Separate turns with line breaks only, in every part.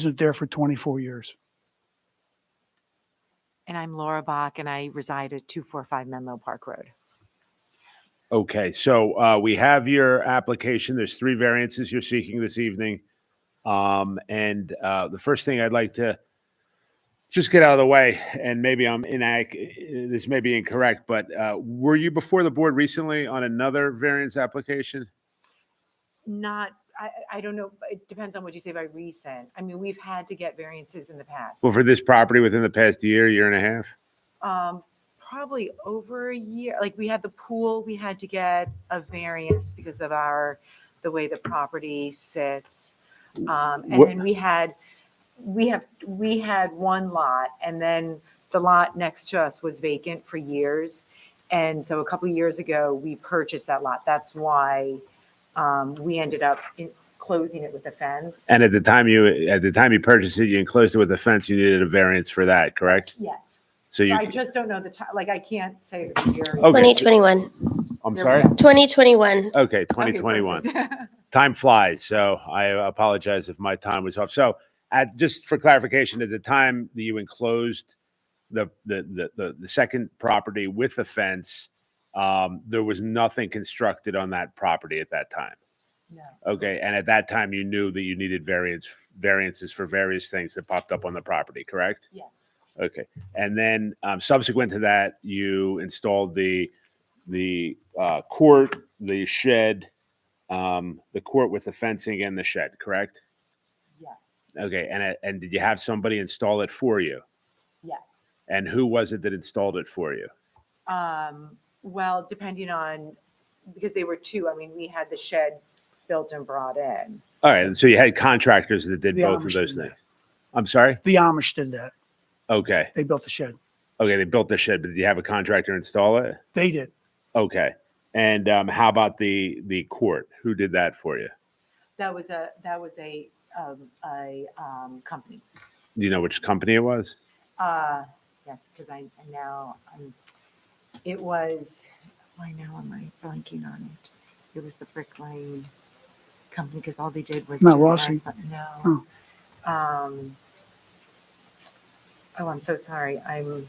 resident there for 24 years.
And I'm Laura Bach, and I reside at 245 Menlo Park Road.
Okay, so uh, we have your application. There's three variances you're seeking this evening. Um, And uh, the first thing I'd like to just get out of the way, and maybe I'm inac, this may be incorrect, but uh, were you before the board recently on another variance application?
Not, I, I don't know, it depends on what you say by recent. I mean, we've had to get variances in the past.
Well, for this property within the past year, year and a half?
Um, Probably over a year, like we had the pool, we had to get a variance because of our, the way the property sits. Um, And
What-
then we had, we have, we had one lot, and then the lot next to us was vacant for years. And so a couple of years ago, we purchased that lot. That's why um, we ended up in- closing it with a fence.
And at the time you, at the time you purchased it, you enclosed it with a fence, you needed a variance for that, correct?
Yes.
So you,
I just don't know the time, like, I can't say the year.
okay,
2021.
I'm sorry?
2021.
Okay,
Okay,
2021.
perfect.
time flies so i apologize if my time was off so at just for clarification at the time that you enclosed the the the, the, the second property with the fence um, there was nothing constructed on that property at that time
No.
okay and at that time you knew that you needed variance variances for various things that popped up on the property correct
Yes.
Okay, and then um, subsequent to that, you installed the the uh, court, the shed, um, the court with the fencing and the shed, correct?
Yes.
Okay, and it- and did you have somebody install it for you?
Yes.
And who was it that installed it for you?
Um, well, depending on, because they were two, I mean, we had the shed built and brought in.
All right, so you had contractors that did
The
both of
Amish
those
did that.
things. I'm sorry.
The Amish did that.
Okay,
They built the shed.
okay, they built the shed, but did you have a contractor install it?
They did.
Mm-hmm. Okay, and um, how about the the court? Who did that for you?
That was a, that was a, um, a, um, company.
Do you know which company it was?
Uh, yes, because I, I now, um, it was, why now am I blanking on it? It was the Brick Lane company, because all they did was.
Not
do the
Rossi.
last one- No. Um, oh, I'm so sorry. I'm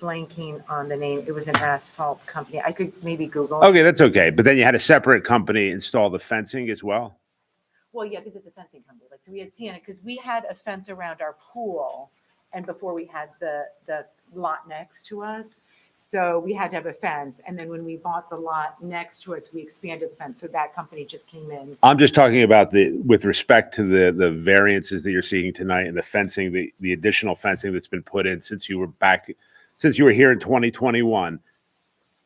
blanking on the name. It was an asphalt company. I could maybe Google.
Okay, that's okay. But then you had a separate company install the fencing as well.
Well, yeah, because it's a fencing company. Like, so we had Sienna, because we had a fence around our pool and before we had the, the lot next to us. So we had to have a fence. And then when we bought the lot next to us, we expanded the fence. So that company just came in.
I'm just talking about the with respect to the the variances that you're seeking tonight and the fencing, the the additional fencing that's been put in since you were back, since you were here in 2021.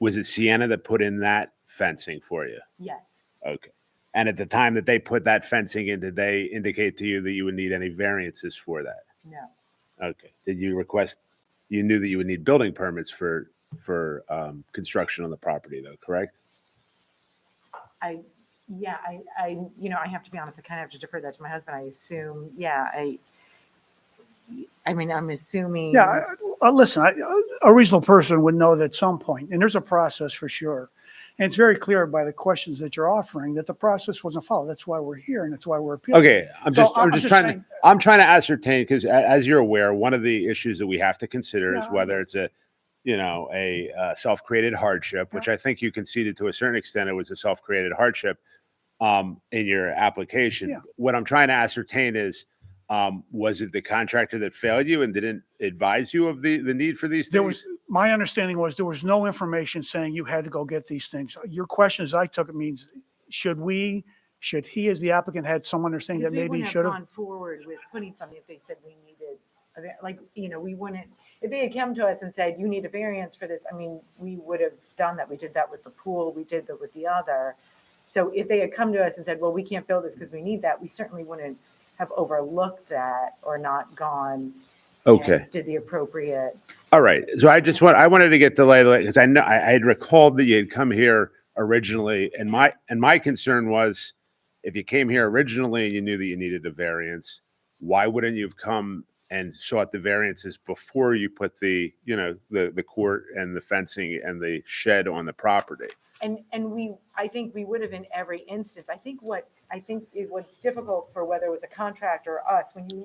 Was it Sienna that put in that fencing for you?
Yes,
Okay. And at the time that they put that fencing in, did they indicate to you that you would need any variances for that?
no,
Okay. Did you request? You knew that you would need building permits for for um, construction on the property, though, correct?
I, yeah, I, I, you know, I have to be honest, I kind of have to defer that to my husband. I assume, yeah, I, I mean, I'm assuming.
Yeah, I- I- listen, I- a reasonable person would know that at some point, and there's a process for sure. And it's very clear by the questions that you're offering that the process wasn't followed. That's why we're here and that's why we're appealing.
Okay, I'm
So
just,
I'm
I'm just
just
trying to,
saying-
I'm trying to ascertain, because as you're aware, one of the issues that we have to consider is
Yeah.
whether it's a, you know, a uh, self-created hardship, which I think you conceded to a certain extent it was a self-created hardship um, in your
Yeah.
application. What I'm trying to ascertain is, um, was it the contractor that failed you and didn't advise you of the, the need for these
There
things?
was, my understanding was there was no information saying you had to go get these things. Your question, as I took it, means should we, should he, as the applicant, had some understanding
Because
that
we
maybe he
wouldn't
should
have
have?
gone forward with putting something if they said we needed, a va- like, you know, we wouldn't, if they had come to us and said, you need a variance for this, I mean, we would have done that. We did that with the pool, we did that with the other. So if they had come to us and said, well, we can't build this because we need that, we certainly wouldn't have overlooked that or not gone. and
Okay.
Did the appropriate,
All right. So I just want, I wanted to get the lay because I know, I I had recalled that you had come here originally and my, and my concern was if you came here originally and you knew that you needed a variance, why wouldn't you have come and sought the variances before you put the, you know, the, the court and the fencing and the shed on the property?
and, and we, I think we would have in every instance. I think what, I think it was difficult for whether it was a contractor or us, when you